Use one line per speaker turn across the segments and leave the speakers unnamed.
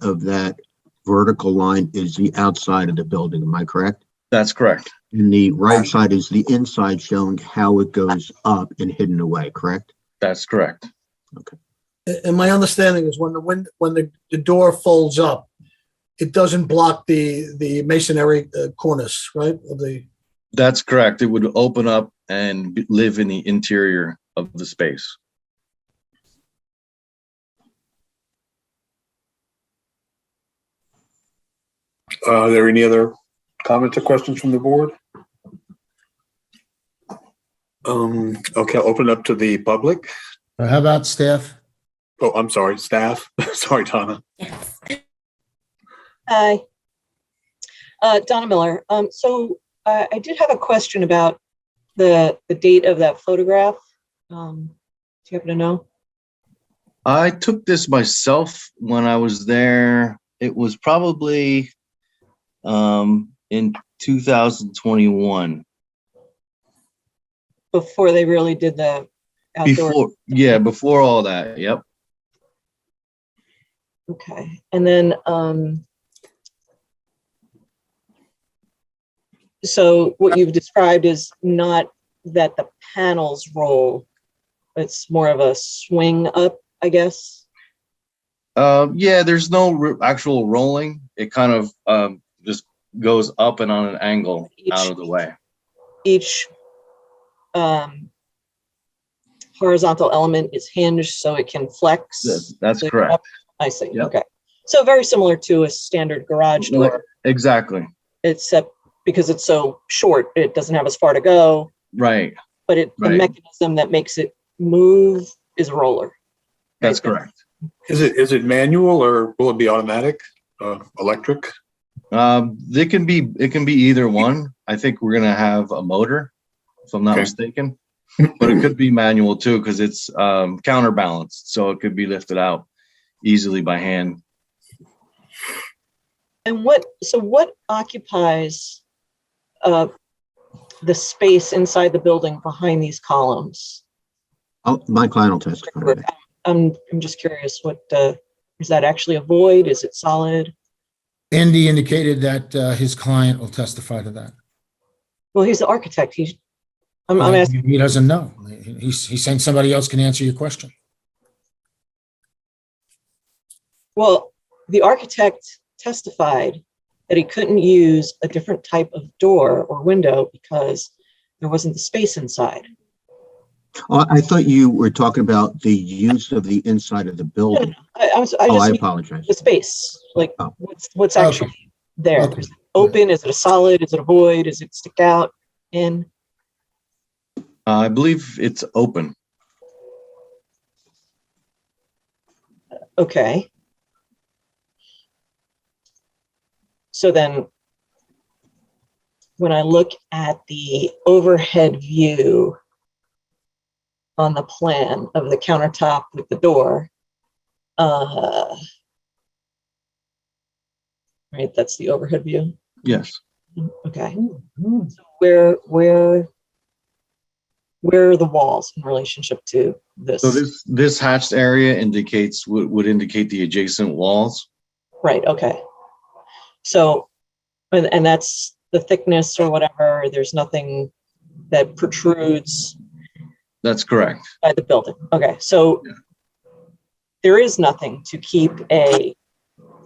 of that vertical line is the outside of the building, am I correct?
That's correct.
And the right side is the inside showing how it goes up and hidden away, correct?
That's correct.
A- And my understanding is when the wind, when the, the door folds up, it doesn't block the, the masonry uh, cornice, right? Of the,
That's correct. It would open up and b- live in the interior of the space.
Uh, Are there any other comments or questions from the board? Um, okay, I'll open up to the public.
Uh, How about staff?
Oh, I'm sorry, staff. Sorry, Donna.
Yes.
Hi. Uh, Donna Miller. Um, so uh, I did have a question about the, the date of that photograph. Um, do you happen to know?
I took this myself when I was there. It was probably um, in 2021.
Before they really did the outdoor?
Before, yeah, before all that. Yep.
Okay. And then, um, so what you've described is not that the panels roll. It's more of a swing up, I guess.
Uh, yeah, there's no r- actual rolling. It kind of um, just goes up and on an angle out of the way.
each um, horizontal element is hinged so it can flex.
That's, that's
So you're
correct.
up- I see,
Yep.
okay. So very similar to a standard garage
Like-
door,
Exactly.
except because it's so short, it doesn't have as far to go,
Right.
but it, the
Right.
mechanism that makes it move is a roller.
That's
Right.
correct.
Is it, is it manual or will it be automatic, uh, electric?
Um, it can be it can be either one. I think we're gonna have a motor, if I'm not
Okay.
mistaken. But it could be manual too, because it's um, counterbalanced, so it could be lifted out easily by hand.
And what, so what occupies uh, the space inside the building behind these columns?
Oh, my client will testify. to that.
I'm, I'm just curious, what, uh, is that actually a void? Is it solid?
Andy indicated that uh, his client will testify to that.
Well, he's the architect. He, I'm,
Mm-hmm.
I'm asking,
He doesn't know. He- He's, he's saying somebody else can answer your question.
well, the architect testified that he couldn't use a different type of door or window because there wasn't the space inside.
Oh, I thought you were talking about the use of the inside of the building.
I, I was, I
Oh, I
just, need
apologize.
the space, like
Oh.
what's, what's
Okay.
actually there?
Okay.
Is it Open, is it a solid, is it a void, is it stick out in?
Uh, I believe it's open.
Okay. So then, when I look at the overhead view on the plan of the countertop with the door, uh, right, that's the overhead view.
Yes.
Okay. So Where, where, where are the walls in relationship to this?
So this this hatched area indicates would, would indicate the adjacent walls.
Right, okay. So, and, and that's the thickness or whatever, there's nothing that protrudes
That's correct.
by the building. Okay, so there is nothing to keep a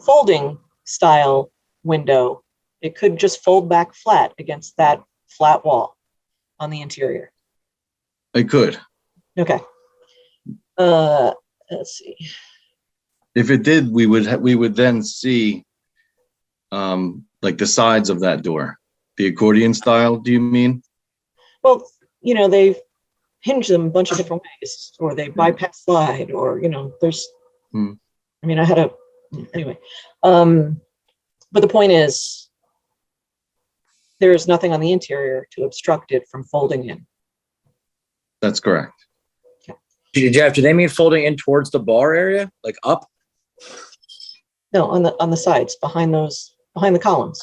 folding style window. It could just fold back flat against that flat wall on the interior.
It could.
Okay. Uh, let's see.
If it did, we would ha- we would then see um like the sides of that door. The accordion style, do you mean?
Well, you know, they hinge them a bunch of different ways, or they bypass slide, or, you know, there's,
Hmm.
I mean, I had a, anyway. Um, but the point is, there is nothing on the interior to obstruct it from folding in.
That's correct.
Jeff, do they mean folding in towards the bar area, like up?
No, on the, on the sides, behind those, behind the columns.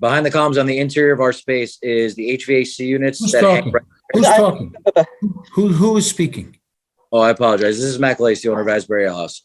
Behind the columns on the interior of our space is the HVAC units
Who's
that hang
talking?
right
Who's talking? Who, who is speaking?
Oh, I apologize. This is Mac Lacy, owner of Asbury Ale House.